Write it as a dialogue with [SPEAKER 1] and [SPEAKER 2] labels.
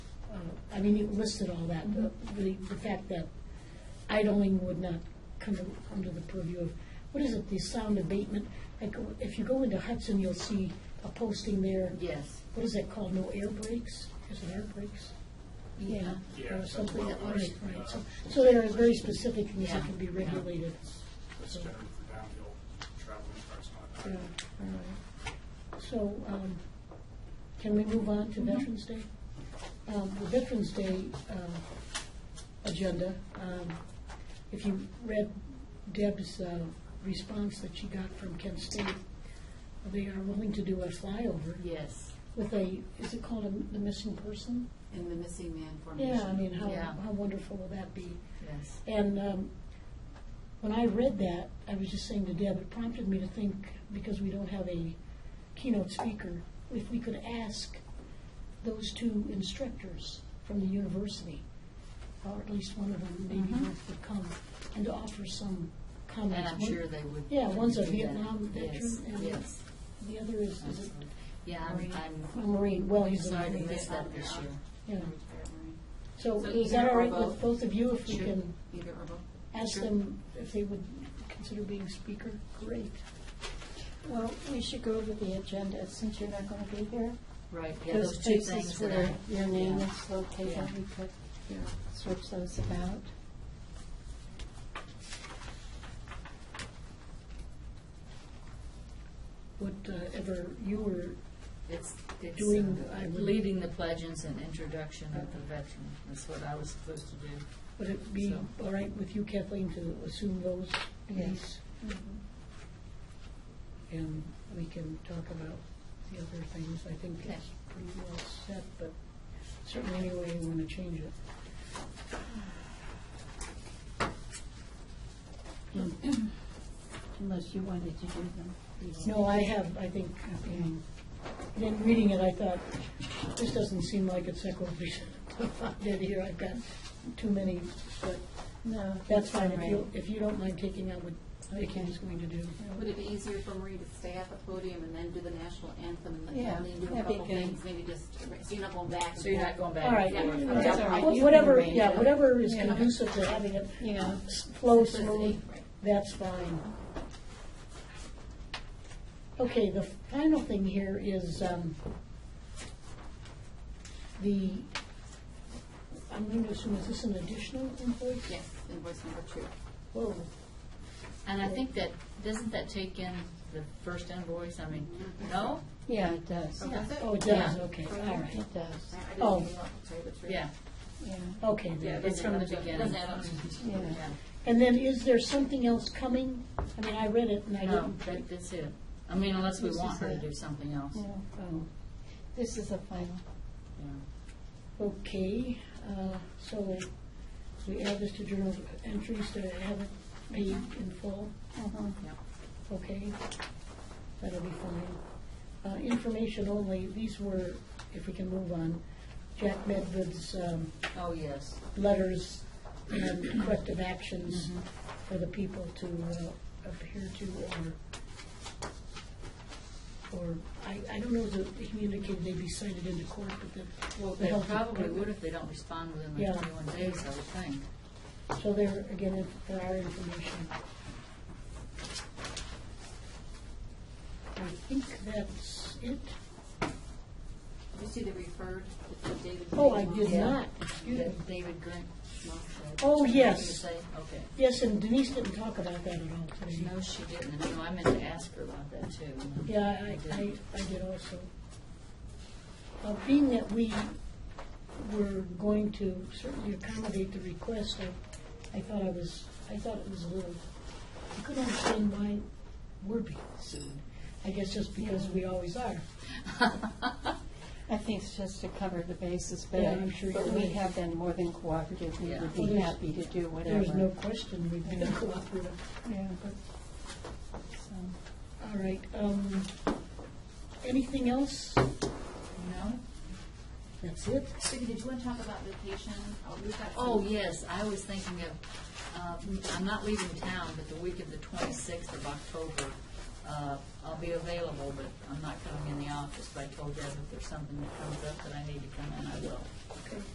[SPEAKER 1] Uh, I mean, you listed all that, the, the the fact that idling would not come to- under the purview of, what is it, the sound abatement? Like, if you go into Hudson, you'll see a posting there,
[SPEAKER 2] Yes.
[SPEAKER 1] what is that called, no air brakes? Is it air brakes?
[SPEAKER 2] Yeah.
[SPEAKER 3] Yeah,
[SPEAKER 1] Or
[SPEAKER 3] that's
[SPEAKER 1] something,
[SPEAKER 3] well,
[SPEAKER 1] right,
[SPEAKER 3] right,
[SPEAKER 1] right.
[SPEAKER 3] uh,
[SPEAKER 1] So- So there are very specific things
[SPEAKER 2] Yeah,
[SPEAKER 1] that can be
[SPEAKER 2] yeah.
[SPEAKER 1] regulated.
[SPEAKER 3] That's
[SPEAKER 1] So-
[SPEAKER 3] generally for downhill traveling cars, not.
[SPEAKER 1] Yeah, all right. So, um, can we move on to Veterans Day? Um, The Veterans Day uh, agenda, um, if you read Deb's uh, response that she got from Kent State, they are willing to do a flyover
[SPEAKER 2] Yes,
[SPEAKER 1] with a, is it called a- the missing person?
[SPEAKER 2] in the missing man formation.
[SPEAKER 1] Yeah, I mean, how
[SPEAKER 2] Yeah,
[SPEAKER 1] how wonderful would that be?
[SPEAKER 2] yes.
[SPEAKER 1] And um, when I read that, I was just saying to Deb, it prompted me to think, because we don't have a keynote speaker, if we could ask those two instructors from the university, or at least one of them, maybe
[SPEAKER 2] Mhm.
[SPEAKER 1] both would come, and to offer some comments.
[SPEAKER 2] And I'm
[SPEAKER 1] One-
[SPEAKER 2] sure they would.
[SPEAKER 1] Yeah, one's a
[SPEAKER 2] do that.
[SPEAKER 1] Vietnam
[SPEAKER 2] Yes,
[SPEAKER 1] veteran and-
[SPEAKER 2] Yes,
[SPEAKER 1] The other is, is it
[SPEAKER 2] absolutely. Yeah, I'm,
[SPEAKER 1] a
[SPEAKER 2] I'm
[SPEAKER 1] Marine? Well, he's a
[SPEAKER 2] sorry to
[SPEAKER 1] Marine.
[SPEAKER 2] miss that this year.
[SPEAKER 1] Yeah.
[SPEAKER 2] Marine.
[SPEAKER 1] So
[SPEAKER 2] So
[SPEAKER 1] is that all right
[SPEAKER 2] either or
[SPEAKER 1] with
[SPEAKER 2] both?
[SPEAKER 1] both of you, if we
[SPEAKER 2] Sure.
[SPEAKER 1] can
[SPEAKER 2] Either or both.
[SPEAKER 1] ask
[SPEAKER 2] Sure.
[SPEAKER 1] them if they would consider being speaker? Great.
[SPEAKER 4] Well, we should go over the agenda since you're not going to be here.
[SPEAKER 2] Right, yeah, those two
[SPEAKER 4] places
[SPEAKER 2] things that
[SPEAKER 4] where
[SPEAKER 2] I-
[SPEAKER 4] Your name
[SPEAKER 2] yeah.
[SPEAKER 4] is located,
[SPEAKER 2] Yeah.
[SPEAKER 4] we could switch those about.
[SPEAKER 1] Whatever uh, you were
[SPEAKER 2] It's, it's
[SPEAKER 1] Doing-
[SPEAKER 2] uh,
[SPEAKER 1] I would-
[SPEAKER 2] leading the pledges and introduction of the veteran. That's what I was supposed to do.
[SPEAKER 1] Would it be
[SPEAKER 2] So-
[SPEAKER 1] all right with you, Kathleen, to assume those duties?
[SPEAKER 2] Mm-hmm.
[SPEAKER 1] And we can talk about the other things. I think
[SPEAKER 2] Okay.
[SPEAKER 1] it's pretty well set, but certainly any way you want to change it.
[SPEAKER 4] Unless you wanted to do them.
[SPEAKER 1] No, I have, I think, you know, then reading it, I thought, this doesn't seem like it's equitable. Did here, I've got too many, but
[SPEAKER 4] No.
[SPEAKER 1] that's fine. If
[SPEAKER 4] right.
[SPEAKER 1] you, if you don't mind taking out what Vicki was going to do.
[SPEAKER 5] Would it be easier for Marie to stay at the podium and then do the national anthem and then
[SPEAKER 4] Yeah,
[SPEAKER 5] Kathleen do a
[SPEAKER 4] that'd be
[SPEAKER 5] couple
[SPEAKER 4] good.
[SPEAKER 5] things, maybe just, so you're not going back and forth?
[SPEAKER 2] So you're not going back.
[SPEAKER 1] All right.
[SPEAKER 2] and forth.
[SPEAKER 5] Yeah.
[SPEAKER 4] That's all right. You
[SPEAKER 1] Wh-
[SPEAKER 4] can
[SPEAKER 1] Whatever,
[SPEAKER 4] arrange
[SPEAKER 1] yeah,
[SPEAKER 4] it.
[SPEAKER 1] whatever is
[SPEAKER 4] Yeah.
[SPEAKER 1] conducive to having it
[SPEAKER 4] Yeah.
[SPEAKER 1] s- flow smooth,
[SPEAKER 5] Simplicity, right.
[SPEAKER 1] that's fine. Okay, the final thing here is um, the, I'm going to assume, is this an additional invoice?
[SPEAKER 5] Yes, invoice number two.
[SPEAKER 1] Whoa,
[SPEAKER 2] And I think that, doesn't that take in the first invoice? I mean, no?
[SPEAKER 4] Yeah, it does.
[SPEAKER 2] Yeah.
[SPEAKER 5] That's it?
[SPEAKER 1] oh, it does,
[SPEAKER 2] Yeah.
[SPEAKER 1] okay, all right,
[SPEAKER 4] It does,
[SPEAKER 5] I- I didn't
[SPEAKER 1] Oh.
[SPEAKER 5] even look, to tell you the truth.
[SPEAKER 2] Yeah,
[SPEAKER 4] yeah.
[SPEAKER 1] okay.
[SPEAKER 2] yeah,
[SPEAKER 1] then.
[SPEAKER 2] it's from the beginning.
[SPEAKER 5] Doesn't add up to-
[SPEAKER 4] Yeah.
[SPEAKER 2] Yeah.
[SPEAKER 1] And then is there something else coming? I mean, I read it and I
[SPEAKER 2] No,
[SPEAKER 1] didn't.
[SPEAKER 2] that, that's it. I mean, unless we
[SPEAKER 4] This
[SPEAKER 2] want
[SPEAKER 4] is
[SPEAKER 2] her to
[SPEAKER 4] it.
[SPEAKER 2] do something else.
[SPEAKER 4] Yeah.
[SPEAKER 1] Oh.
[SPEAKER 4] This is the final.
[SPEAKER 2] Yeah.
[SPEAKER 1] Okay, uh, so we add this to journal of entries to have it paid in full,
[SPEAKER 4] Uh-huh.
[SPEAKER 1] okay? That'll be fine. Uh, Information only, these were, if we can move on, Jack Medved's um,
[SPEAKER 2] Oh, yes.
[SPEAKER 1] letters and corrective actions for the people to uh, appear to or, or, I I don't know, that they communicated they'd be cited into court, but the.
[SPEAKER 2] Well,
[SPEAKER 1] the
[SPEAKER 2] they
[SPEAKER 1] health
[SPEAKER 2] probably
[SPEAKER 1] department-
[SPEAKER 2] would if they don't respond within
[SPEAKER 1] Yeah.
[SPEAKER 2] the twenty-one days, I would think.
[SPEAKER 1] So there, again, if- for our information. I think that's it.
[SPEAKER 5] Did you see the referred, it's the David.
[SPEAKER 1] Oh, I did
[SPEAKER 2] Yeah.
[SPEAKER 1] not, excuse me.
[SPEAKER 2] That David Grant.
[SPEAKER 1] Oh,
[SPEAKER 2] Did you
[SPEAKER 1] yes,
[SPEAKER 2] say? Okay.
[SPEAKER 1] yes, and Denise didn't talk about that at all today.
[SPEAKER 2] No, she didn't. No, I meant to ask her about that too.
[SPEAKER 1] Yeah, I, I, I did also. Uh, being that we were going to certainly accommodate the request, I, I thought I was, I thought it was a little, I couldn't understand why we're being sued. I guess just because we always are.
[SPEAKER 4] I think it's just to cover the bases, but,
[SPEAKER 1] Yeah, I'm sure
[SPEAKER 4] but
[SPEAKER 1] you're
[SPEAKER 4] we
[SPEAKER 1] right.
[SPEAKER 4] have been more than cooperative. We
[SPEAKER 2] Yeah.
[SPEAKER 4] would
[SPEAKER 1] Well,
[SPEAKER 4] be
[SPEAKER 1] there's-
[SPEAKER 4] happy to do whatever.
[SPEAKER 1] There's no question we've been cooperative.
[SPEAKER 4] Yeah, but, so.
[SPEAKER 1] All right, um, anything else?
[SPEAKER 2] No?
[SPEAKER 1] That's it?
[SPEAKER 5] Vicki, did you want to talk about vacation? Oh, we've got
[SPEAKER 2] Oh,
[SPEAKER 5] some-
[SPEAKER 2] yes, I was thinking of, uh, I'm not leaving town, but the week of the 26th of October, uh, I'll be available, but I'm not coming in the office, but I told Deb if there's something that comes up that I need to come in, I will.
[SPEAKER 1] Okay.